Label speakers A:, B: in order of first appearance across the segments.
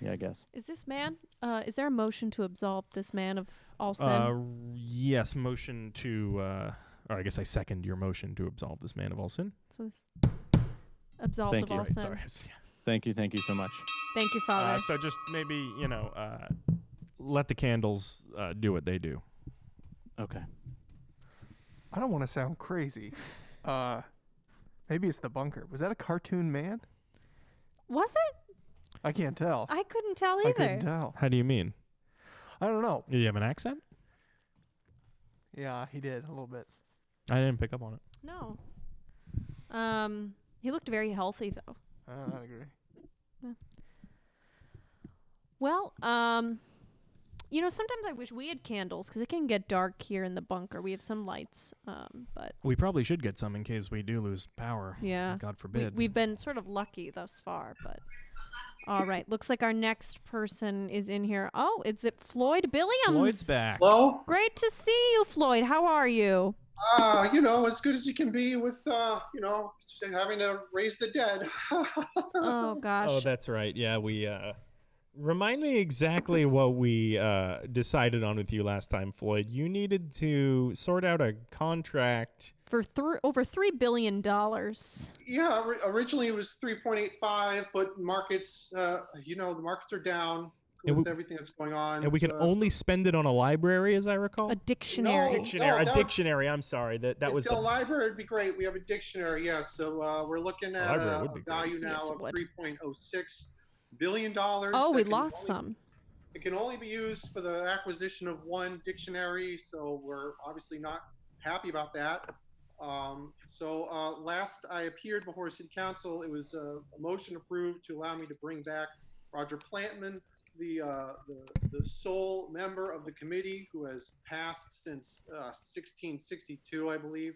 A: Yeah, I guess.
B: Is this man? Uh, is there a motion to absolve this man of all sin?
C: Uh, r- yes, motion to, uh, or I guess I second your motion to absolve this man of all sin.
B: so this absolved
A: Thank
B: of
A: you.
B: all
C: Right,
B: sin.
C: sorry.
A: Thank you, thank you so much.
B: Thank you,
C: Uh,
B: Father.
C: so just maybe you know, uh, let the candles uh, do what they do.
A: Okay.
D: I don't want to sound crazy. Uh, maybe it's the bunker. Was that a cartoon man?
B: Was it?
D: I can't tell.
B: I couldn't tell
D: I
B: either.
D: couldn't tell.
C: How do you mean?
D: I don't know.
C: Do you have an accent?
D: Yeah, he did a little bit.
C: I didn't pick up on it.
B: No. Um, he looked very healthy though.
D: Uh, I agree.
B: Well, um, you know, sometimes I wish we had candles because it can get dark here in the bunker. We have some lights, um, but
C: We probably should get some in case we do lose power.
B: yeah,
C: God forbid.
B: we, have been sort of lucky thus far. But all right, looks like our next person is in here. Oh, it's it Floyd Billiams.
C: Floyd's back.
E: Hello?
B: Great to see you, Floyd. How are you?
E: Uh, you know, as good as you can be with, uh, you know, having to raise the dead.
B: Oh gosh.
F: Oh, that's right. Yeah, we uh remind me exactly what we uh decided on with you last time, Floyd. You needed to sort out a contract.
B: for thr over three billion dollars.
E: yeah, ori- originally it was 3.85, but markets, uh, you know, the markets are down
F: And
E: with
F: we-
E: everything that's going on.
F: And we could
E: Uh,
F: only spend it on a library, as I
C: Oh,
F: recall.
B: A dictionary.
E: Oh, No.
F: dictionary.
E: that-
F: a dictionary, I'm sorry. That that
E: if
F: was
E: the
F: the,
E: library would be great. We have a dictionary, yes. so uh, we're looking at
F: library
E: a,
F: would
E: a
F: be great.
E: value now
B: Yes, it
E: of
B: would.
E: 3.06 billion dollars.
B: Oh,
E: that
B: we
E: can
B: lost
E: only-
B: some.
E: It can only be used for the acquisition of one dictionary, so we're obviously not happy about that. Um, so uh, last I appeared before City Council, it was uh, a motion approved to allow me to bring back Roger Plantman, the, uh, the, the sole member of the committee who has passed since uh, 1662, I believe.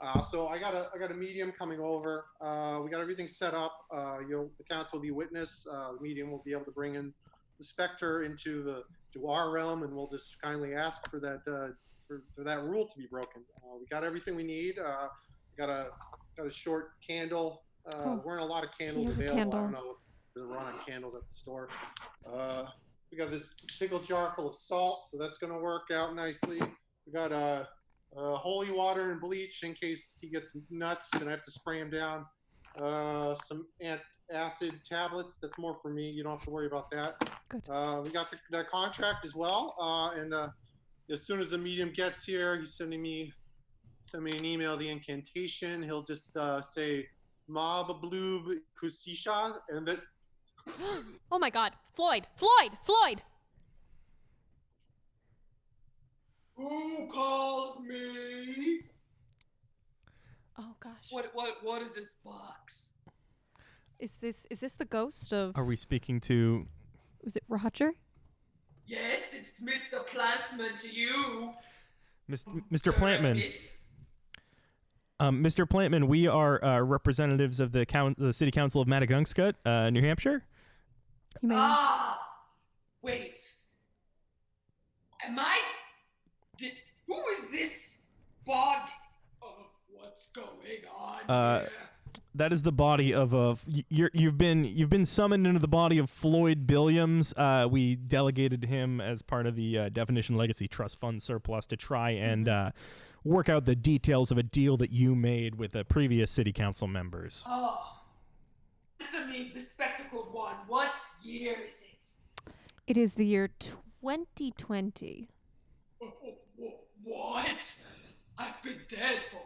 E: Uh, so I got a I got a medium coming over. Uh, we got everything set up. Uh, you'll the council will be witness. Uh, the medium will be able to bring in the specter into the to our realm, and we'll just kindly ask for that uh, for, for that rule to be broken. Uh, we got everything we need. Uh, we got a got a short candle. Uh,
B: Oh,
E: There weren't a lot of candles
B: has a
E: available. I don't
B: candle.
E: know if they are on candles at the store. Uh, we got this pickle jar full of salt, so that's going to work out nicely. We got uh, uh, holy water and bleach in case he gets nuts and I have to spray him down. Uh, some ant acid tablets. That's more for me. You don't have to worry about that.
B: Good.
E: Uh, we got the, that contract as well. Uh, and uh, as soon as the medium gets here, he's sending me send me an email. The incantation. He'll just uh, say "Mab bloob kusisha," and that
B: oh my God, Floyd, Floyd, Floyd.
G: Who calls me?
B: Oh gosh.
G: What what what is this box?
B: is this? Is this the ghost of?
F: Are we speaking to
B: Was it Roger?
G: Yes, it's Mr. Plantman to you.
C: Mis-
E: Oh,
C: Mr. Plantman,
G: It's-
C: um, Mr. Plantman, we are uh, representatives of the, coun- the City Council of Madagungscut, uh, New Hampshire.
B: You may.
G: Ah, wait. Am I? Did, who is this body? Oh, what's going on
C: Uh,
G: here?
C: That is the body of a. y- You're, you've been you've been summoned into the body of Floyd Billiams. Uh, we delegated him as part of the uh, Definition Legacy Trust Fund surplus to try and
E: Mm-hmm.
C: uh, work out the details of a deal that you made with the previous City Council members.
G: Oh, answer me, bespectacled one. What year is it?
B: It is the year 2020.
G: Wh- What? I've been dead for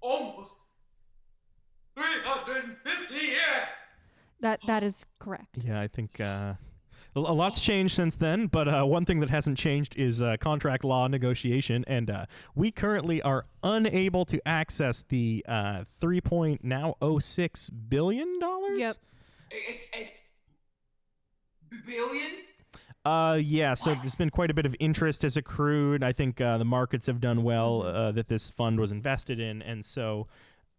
G: almost 350 years!
B: That that is correct.
C: Yeah, I think uh, a a lot's changed since then, but uh, one thing that hasn't changed is uh, contract law negotiation, and uh, we currently are unable to access the uh, three point now oh six billion dollars.
B: Yep.
G: It's, it's billion?
C: Uh, yeah. So there's been quite a bit of interest has accrued. I think uh, the markets have done well uh, that this fund was invested in, and so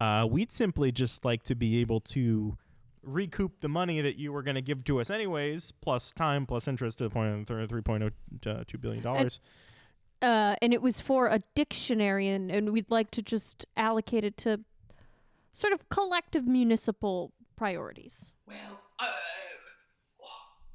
C: uh, we'd simply just like to be able to recoup the money that you were going to give to us anyways, plus time, plus interest to the point of three point oh two billion dollars.
B: Uh, and it was for a dictionary, and, and we'd like to just allocate it to sort of collective municipal priorities.
G: Well, uh,